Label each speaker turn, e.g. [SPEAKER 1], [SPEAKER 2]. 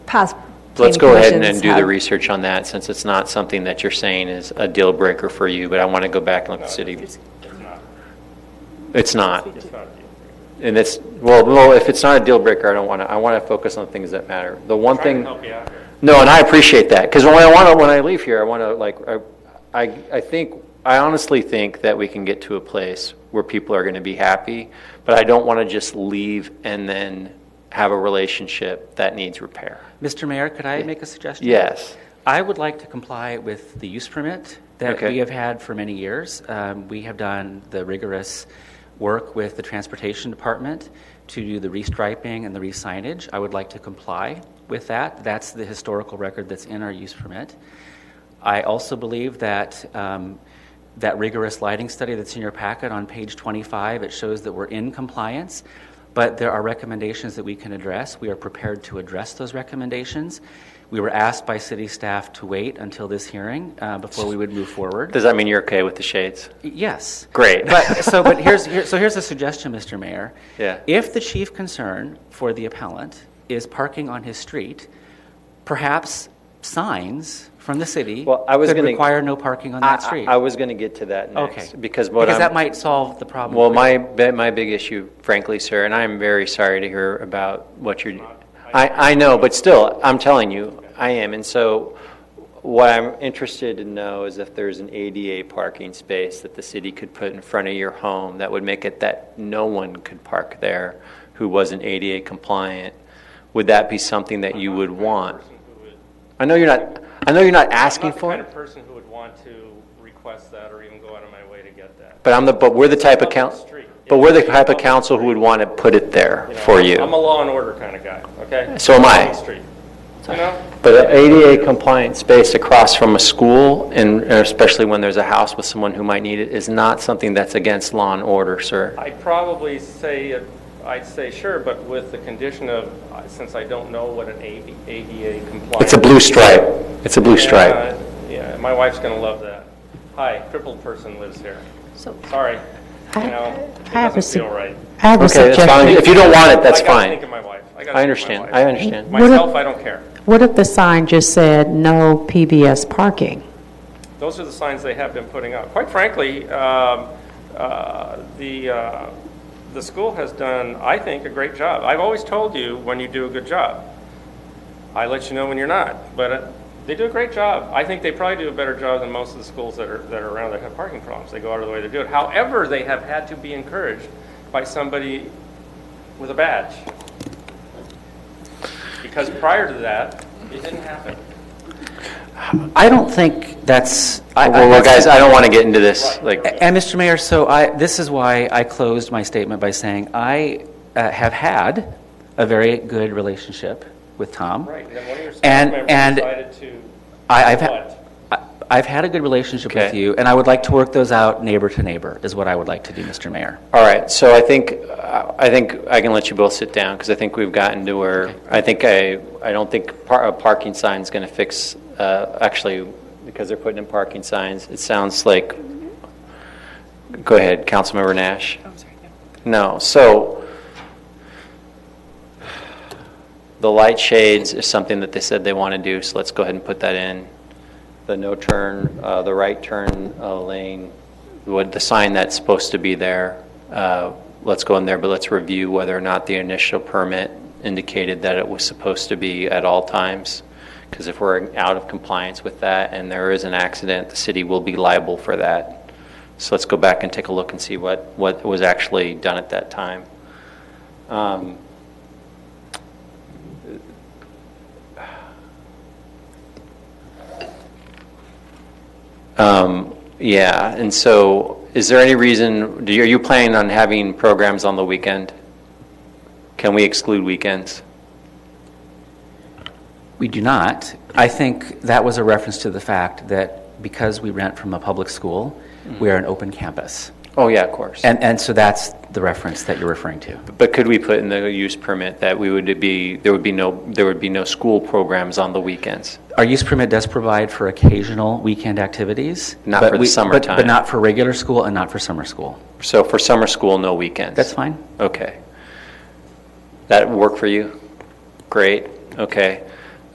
[SPEAKER 1] pos-
[SPEAKER 2] Let's
[SPEAKER 1] planning
[SPEAKER 2] go ahead and
[SPEAKER 1] commissions
[SPEAKER 2] then do the
[SPEAKER 1] have.
[SPEAKER 2] research on that, since it's not something that you're saying is a deal breaker for you, but I want to go back and look at the city. It's not. And it's, well, no, if it's not a deal breaker, I don't want to, I want to focus on things that matter. The one
[SPEAKER 3] Trying
[SPEAKER 2] thing.
[SPEAKER 3] to help you out here.
[SPEAKER 2] No, and I appreciate that, because when I want to, when I leave here, I want to, like, I- I, I think, I honestly think that we can get to a place where people are going to be happy, but I don't want to just leave and then have a relationship that needs repair.
[SPEAKER 4] Mr. Mayor, could I make a suggestion?
[SPEAKER 2] Yes.
[SPEAKER 4] I would like to comply with the use permit that
[SPEAKER 2] Okay.
[SPEAKER 4] we have had for many years. Um, We have done the rigorous work with the Transportation Department to do the restriping and the re-signage. I would like to comply with that. That's the historical record that's in our use permit. I also believe that um, that rigorous lighting study that's in your packet on page 25, it shows that we're in compliance, but there are recommendations that we can address. We are prepared to address those recommendations. We were asked by city staff to wait until this hearing uh, before we would move forward.
[SPEAKER 2] Does that mean you're okay with the shades?
[SPEAKER 4] Yes.
[SPEAKER 2] Great.
[SPEAKER 4] But, so, but here's, here, so here's a suggestion, Mr. Mayor.
[SPEAKER 2] Yeah.
[SPEAKER 4] If the chief concern for the appellant is parking on his street, perhaps signs from the city
[SPEAKER 2] Well, I was
[SPEAKER 4] could
[SPEAKER 2] gonna-
[SPEAKER 4] require no parking on that
[SPEAKER 2] I-
[SPEAKER 4] street.
[SPEAKER 2] I, I was going to get to that
[SPEAKER 4] okay.
[SPEAKER 2] next. Because what I'm.
[SPEAKER 4] that might solve the problem.
[SPEAKER 2] Well,
[SPEAKER 4] for
[SPEAKER 2] my,
[SPEAKER 4] you.
[SPEAKER 2] bi- my big issue, frankly, sir, and I'm very sorry to hear about what you're, I, I know, but still, I'm telling you, I am. And so what I'm interested to know is if there's an ADA parking space that the city could put in front of your home that would make it that no one could park there who wasn't ADA compliant. Would that be something that you would want?
[SPEAKER 3] Person who would-
[SPEAKER 2] I know you're not, I know you're not
[SPEAKER 3] I'm
[SPEAKER 2] asking
[SPEAKER 3] not the
[SPEAKER 2] for
[SPEAKER 3] kind of
[SPEAKER 2] it,
[SPEAKER 3] person who would want to request that or even go out of my way to get that.
[SPEAKER 2] but I'm the, but we're the type of
[SPEAKER 3] Public
[SPEAKER 2] coun,
[SPEAKER 3] street.
[SPEAKER 2] but we're the type of council who would want to put it there
[SPEAKER 3] You know,
[SPEAKER 2] for you.
[SPEAKER 3] I'm a law and order kind of guy, okay?
[SPEAKER 2] So am I.
[SPEAKER 3] On the street, you know?
[SPEAKER 2] But an ADA compliant space across from a school, and and especially when there's a house with someone who might need it, is not something that's against law and order, sir.
[SPEAKER 3] I'd probably say, it- I'd say sure, but with the condition of, uh, since I don't know what an AV ADA compliant.
[SPEAKER 2] It's a blue stripe. It's a blue
[SPEAKER 3] Yeah,
[SPEAKER 2] stripe.
[SPEAKER 3] Yeah, my wife's going to love that. Hi, crippled person lives here.
[SPEAKER 5] So-
[SPEAKER 3] Sorry, you
[SPEAKER 5] I-
[SPEAKER 3] know, it
[SPEAKER 5] I have a
[SPEAKER 3] doesn't
[SPEAKER 5] su-
[SPEAKER 3] feel right.
[SPEAKER 5] I have a
[SPEAKER 2] Okay, that's fine. If you
[SPEAKER 5] suggestion.
[SPEAKER 2] don't want it, that's
[SPEAKER 3] I gotta think
[SPEAKER 2] fine.
[SPEAKER 3] of my wife. gotta
[SPEAKER 2] I
[SPEAKER 3] think of my
[SPEAKER 2] understand,
[SPEAKER 3] wife.
[SPEAKER 2] I understand.
[SPEAKER 5] What if-
[SPEAKER 3] Myself, I don't care.
[SPEAKER 5] What if the sign just said, "No PBS parking"?
[SPEAKER 3] Those are the signs they have been putting up. Quite frankly, um, uh, the, uh, the school has done, I think, a great job. I've always told you when you do a good job. I let you know when you're not, but uh, they do a great job. I think they probably do a better job than most of the schools that are, that are around that have parking problems. They go out of the way to do it. However, they have had to be encouraged by somebody with a badge. Because prior to that, it didn't happen.
[SPEAKER 4] I don't think that's. I, I-
[SPEAKER 2] Well, well,
[SPEAKER 4] that's-
[SPEAKER 2] guys, I don't want to get into this, like,
[SPEAKER 4] And Mr. Mayor, so I, this is why I closed my statement by saying I uh, have had a very good relationship with Tom.
[SPEAKER 3] Right, and then one of your staff
[SPEAKER 4] And- and-
[SPEAKER 3] members decided to
[SPEAKER 4] I, I've, ha-
[SPEAKER 3] What?
[SPEAKER 4] I- I've had a good relationship with
[SPEAKER 2] Okay.
[SPEAKER 4] you, and I would like to work those out neighbor to neighbor, is what I would like to do, Mr. Mayor.
[SPEAKER 2] all right, so I think, I think I can let you both sit down, because I think we've gotten to where, I think I, I don't think par- a parking sign's going to fix, uh, actually, because they're putting in parking signs, it sounds like, go ahead, Councilmember Nash. No, so the light shades is something that they said they want to do, so let's go ahead and put that in. The no turn, uh, the right turn uh, lane, what, the sign that's supposed to be there, uh, let's go in there, but let's review whether or not the initial permit indicated that it was supposed to be at all times. Because if we're out of compliance with that and there is an accident, the city will be liable for that. So let's go back and take a look and see what, what was actually done at that time. Um, um, Yeah, and so is there any reason, do you- are you planning on having programs on the weekend? Can we exclude weekends?
[SPEAKER 4] We do not. I think that was a reference to the fact that because we rent from a public school,
[SPEAKER 2] Mm-hmm.
[SPEAKER 4] we are an open campus.
[SPEAKER 2] Oh, yeah, of course.
[SPEAKER 4] And, and so that's the reference that you're referring to.
[SPEAKER 2] But could we put in the use permit that we would be, there would be no, there would be no school programs on the weekends?
[SPEAKER 4] Our use permit does provide for occasional weekend activities.
[SPEAKER 2] Not
[SPEAKER 4] but
[SPEAKER 2] for the
[SPEAKER 4] we- but-
[SPEAKER 2] summertime.
[SPEAKER 4] But not for regular school and not for summer school.
[SPEAKER 2] So for summer school, no weekends?
[SPEAKER 4] That's fine.
[SPEAKER 2] Okay. That work for you? Great, okay.